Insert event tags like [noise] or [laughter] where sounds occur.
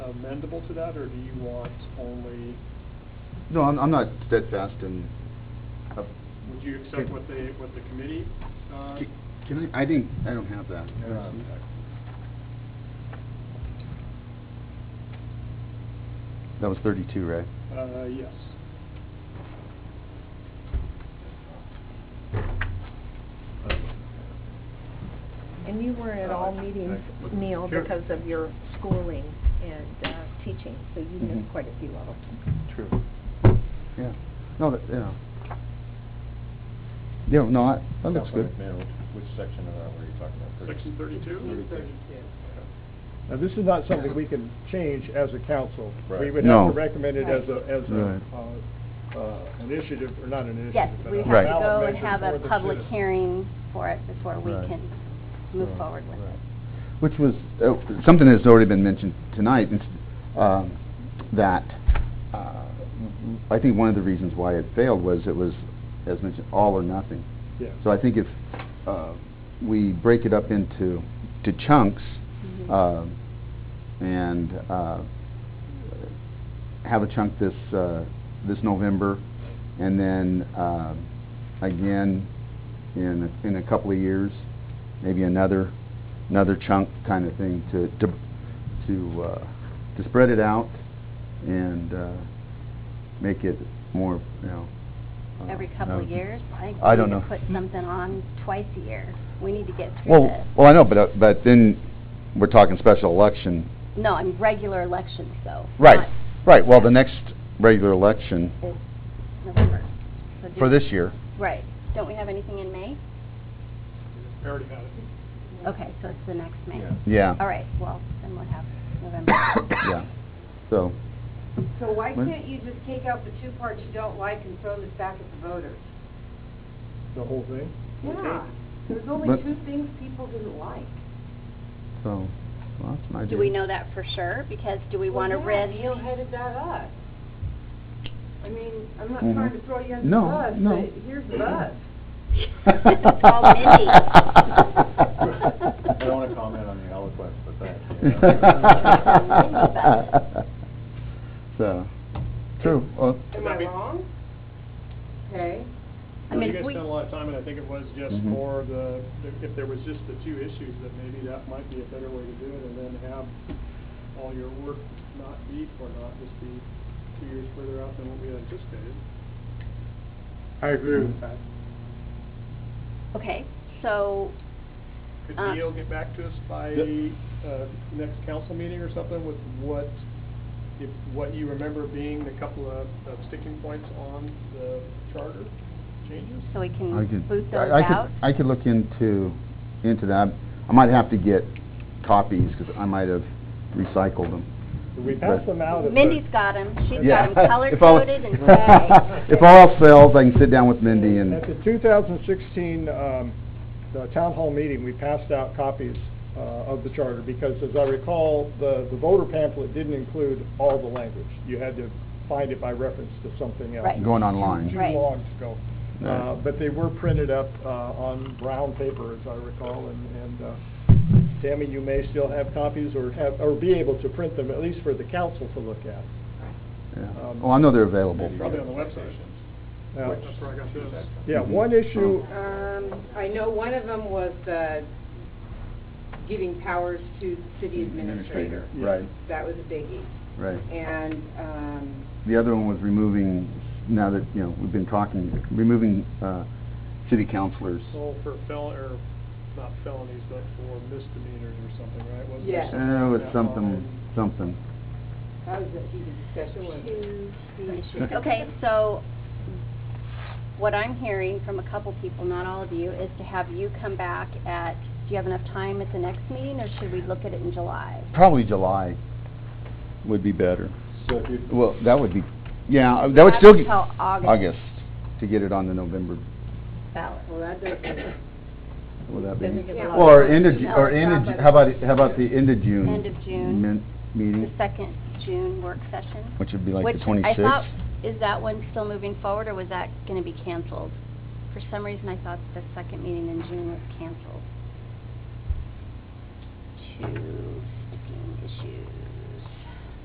amendable to that, or do you want only, No, I'm, I'm not steadfast in, uh, would you accept what the, what the committee? uh, c- can I, I didn't, I don't have that. uh, um, That was thirty-two, right? Uh, yes. Uh, And you weren't at all Uh, meetings, I- Neil, Sure. because of your schooling and uh, teaching, so you missed Mhm. quite a few of them. True. Oh, Yeah, no, that, yeah. Yeah, no, I- that looks good. Which section of that were you talking about? Section thirty-two? Now, this is not something we can change as a council. We Right. would have No. to recommend it as a, as Right. a, uh, uh, initiative, or not an initiative. Yes, but we a have Right. to ballot go and measure have for a the public citizens. hearing for it before we Right. can move Right, forward with right. it. Which was, uh, something that's already been mentioned tonight, is, um, that, uh, I think one of the reasons why it failed was it was, as mentioned, all or nothing. Yeah. So I think if, uh, we break it up into, to chunks, Mhm. um, and, uh, have a chunk this, uh, this November, and then, um, again, in, in a couple of years, maybe another, another chunk kind of thing to, to, to, uh, to spread it out and, uh, make it more, you know. uh, Every couple of uh, years, I think I we don't need to know. put something on twice a year. We need to get through Well, this. well, I know, but, uh, but then we're talking special election. No, I mean, regular elections though. Right, not right, well, the next regular election in November. So for do- this year, Right. Don't we have anything in May? I already had it. Okay, so it's the next May. Yeah. yeah. All right, well, then we'll have November. [coughs] Yeah, so, So why What? can't you just take out the two parts you don't like and throw this back at the voters? The whole thing? Yeah, there's only But- two things people didn't like. so, well, that's my idea. Do we know that for sure? Because do we Well, want to yeah, risk? [laughs] Neil headed that up. I mean, I'm not Mhm. trying to throw you under No, the bus, no. but here's the bus. [laughs] It's I don't want to comment on the eloquence, but that. [laughs] [laughs] So, true, well, Am That'd I be- wrong? Okay. I Well, mean, You if guys we- spent a lot of time, and I think it was just Mhm. for the, if there was just the two issues, that maybe that might be a better way to do it, and then have all your work not be for not, just be two years further out than what we had anticipated. I agree with that. Okay, so Could Uh, Neil get back to us by, Yep. uh, next council meeting or something with what, if, what you remember being the couple of of sticking points on the charter changes? So we I could, can boot those I I out? could, I could look into, into that. I might have to get copies, because I might have recycled them. We pass them out. at the- Mindy's got them, she's Yeah. got them color [laughs] If all- [laughs] coded and gray. If all else fails, I can sit down with Mindy and. At the 2016, um, the town hall meeting, we passed out copies uh, of the charter, because as I recall, the the voter pamphlet didn't include all the language. You had to find it by reference to something else. Right. Going online. Too Right. long to go. Right. Uh, Um, But they were printed up uh, on brown paper, as I recall, and- and uh, Tammy, you may still have copies or have, or be able to print them, at least for the council to look at. Yeah. Um, Oh, I know they're available. Probably on the website. Now, That's where I got this. Yeah, one issue Oh. Um, I know one of them was the giving powers to city administrator. Right, That was a biggie. right. And, um, The other one was removing, now that, you know, we've been talking, removing uh, city councilors. Well, for fel, or not felonies, but for misdemeanors or something, right? Wasn't there Yeah. Uh, something It was like that something, on- something. that was a heated discussion, wasn't it? To [laughs] the issue. Okay, so what I'm hearing from a couple people, not all of you, is to have you come back at, do you have enough time at the next meeting, or should we look at it in July? Probably July would be better. So if you, Well, that would be, yeah, uh, that would still. That's ge- till August. August, to get it on the November, Ballot. Well, that doesn't, will that be? Then we get Yeah. the- Or end of, Ju- No, or it's end of, not Ju- by how the- about, it- how about the end of June? End of June. min- The Meeting, second June work session? which would be like the Which I thought, 26th. is that one still moving forward, or was that going to be canceled? For some reason, I thought the second meeting in June was canceled. Two,